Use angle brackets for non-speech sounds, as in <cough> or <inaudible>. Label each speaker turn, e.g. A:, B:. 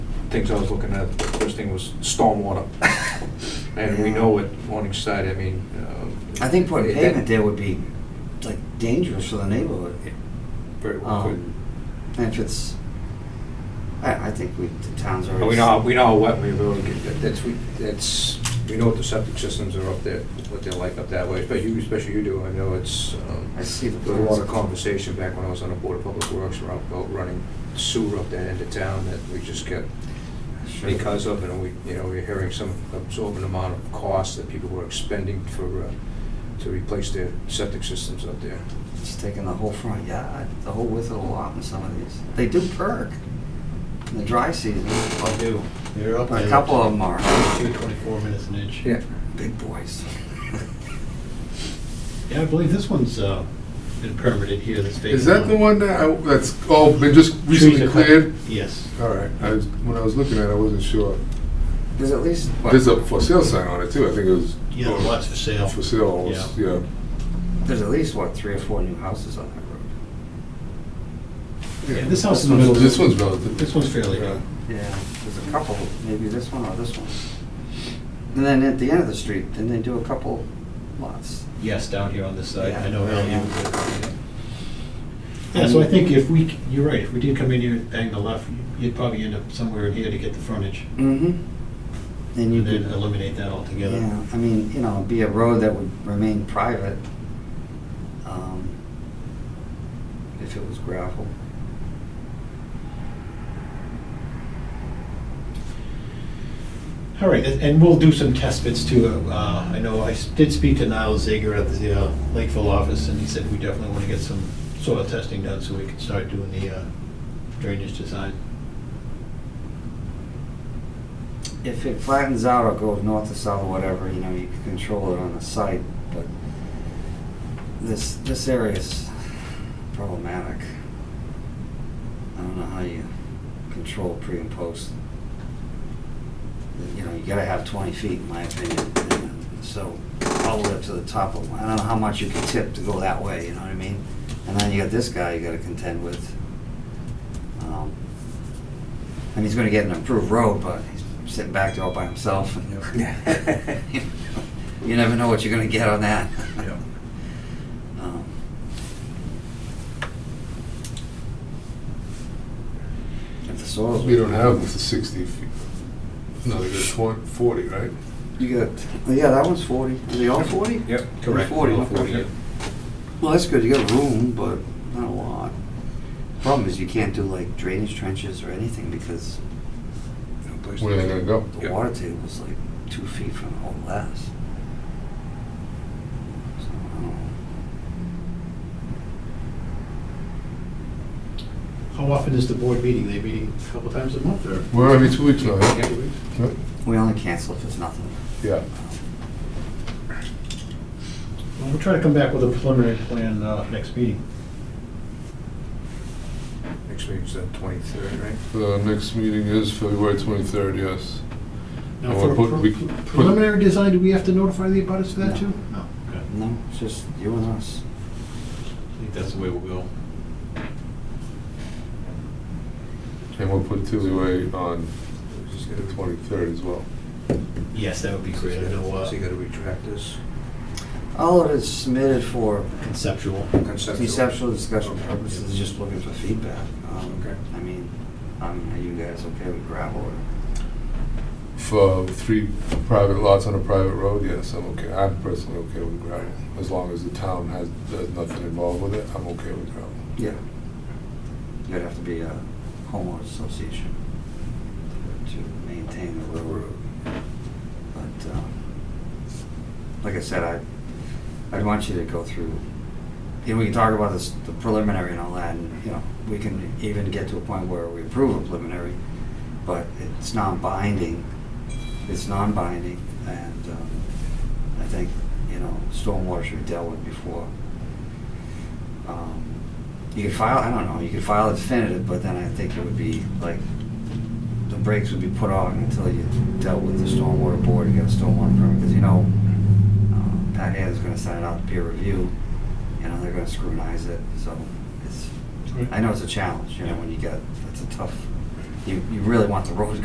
A: things I was looking at, the first thing was stormwater. And we know at Morningside, I mean. uh,
B: I think putting
A: that-
B: pavement there would be like dangerous for the neighborhood.
A: Very well could.
B: Um, And if it's, I, I think we, the town's
A: But
B: already.
A: We know, how- we know how wet we really get, that- that's, we, that's, we know what the septic systems are up there, what they're like up that way, especially you, especially you do, I know it's, um,
B: I see the.
A: there was a lot of
B: plans.
A: conversation back when I was on the Board of Public Works around about running sewer up that end of town that we just kept
B: Sure.
A: because of, and we, you know, we're hearing some absorbent amount of cost that people were expending for, uh, to replace their septic systems up there.
B: It's taking the whole front yard, the whole width of the lot in some of these. They do perk in the dry season.
C: I do. You're up
B: A
C: there.
B: couple of them are
C: Two twenty-four minutes an inch.
B: big boys. <laughs>
C: Yeah, I believe this one's, uh, been permitted here, this vacant.
D: Is that the
C: lot.
D: one that, I- that's, oh, been just
C: Trees
D: recently
C: are cut-
D: cleared?
C: Yes.
D: All right, I, was- when I was looking at it, I wasn't sure.
B: There's at least, what,
D: There's a for sale sign on it too, I think it was.
C: Yeah, the lot's for sale.
D: For sale, it was- yeah.
B: there's at least, what, three or four new houses on that road?
C: Yeah, this house is.
D: This one's- This one's relative.
C: This one's fairly
D: Yeah.
C: new.
B: Yeah. There's a couple, maybe this one or this one. And then at the end of the street, then they do a couple lots.
C: Yes, down here on this side.
B: Yeah.
C: I know Al, you were- Yeah,
D: Um,
C: so I think if we, c- you're right, if we did come in here and bang the left, you'd probably end up somewhere in here to get the frontage.
B: Mm-hmm. And you
C: And then
B: could,
C: eliminate that altogether.
B: yeah, I mean, you know, it'd be a road that would remain private, um, if it was gravel.
C: All right, and and we'll do some test bits too. Uh, I know I s- did speak to Niall Zager at the uh, Lakeville office, and he said we definitely want to get some soil testing done so we can start doing the uh, drainage design.
B: If it flattens out or goes north to south or whatever, you know, you can control it on the site, but this, this area is problematic. I don't know how you control pre and post. You know, you gotta have twenty feet in my opinion, and so all the way up to the top of, I don't know how much you can tip to go that way, you know what I mean? And then you got this guy you gotta contend with. Um, and he's going to get an improved road, but he's sitting back there all by himself.
A: Yeah.
B: <laughs> you never know what you're going to get on that. Um, if the soil's
D: We don't have this sixty feet. No, they got twen- forty, right?
B: you got oh, yeah, that one's forty. Are they all forty?
A: Yep.
C: Correct.
B: Forty,
C: All forty,
B: okay. Well, that's good. You got room, but not a lot. Problem is, you can't do like drainage trenches or anything because
A: No place to-
D: Where are they gonna go?
B: The
A: Yep.
B: water table's like two feet from the whole glass. So, I don't know.
C: How often is the board meeting? They meeting a couple times a month or?
D: We're every two weeks now,
A: Yeah.
D: right?
B: We only cancel if it's nothing.
D: Yeah.
C: Well, We'll try to come back with a preliminary plan uh, next meeting.
A: Next week's the twenty-third, right?
D: The next meeting is February twenty-third, yes.
C: Now,
D: And
C: for
D: we'll put- we
C: pre-
D: can put-
C: preliminary design, do we have to notify the abutters for
B: No.
C: that too? No. Okay.
B: No, it's just you and us.
C: I think that's the way we'll go.
D: And we'll put Tillyway on
A: Just
D: the
A: gotta-
D: twenty-third as well.
C: Yes, that would be great. I know,
A: So you
C: uh,
A: gotta retract this
B: All of it is submitted for
C: conceptual.
A: conceptual.
B: conceptual discussion
A: Okay.
B: purposes, just looking for feedback. Um,
A: Okay.
B: I mean, I mean, are you guys okay with gravel or?
D: For three private lots on a private road, yes, I'm okay. I'm personally okay with gravel. As long as the town has, there's nothing involved with it, I'm okay with gravel.
B: Yeah. You'd have to be a homeowners association to maintain the railroad. But, um, like I said, I, I'd want you to go through, you know, we can talk about this, the preliminary and all that, and, you know, we can even get to a point where we approve a preliminary, but it's non-binding, it's non-binding, and, um, I think, you know, stormwater should be dealt with before. um, You could file, I don't know, you could file it definitive, but then I think it would be like, the brakes would be put on until you dealt with the stormwater board, you got a stormwater permit, because you know, uh, Pat Ann's gonna send it out to peer review, you know, they're gonna scrutinize it, so it's, I know it's a challenge, you know, when you get, it's a tough, you, you really want the road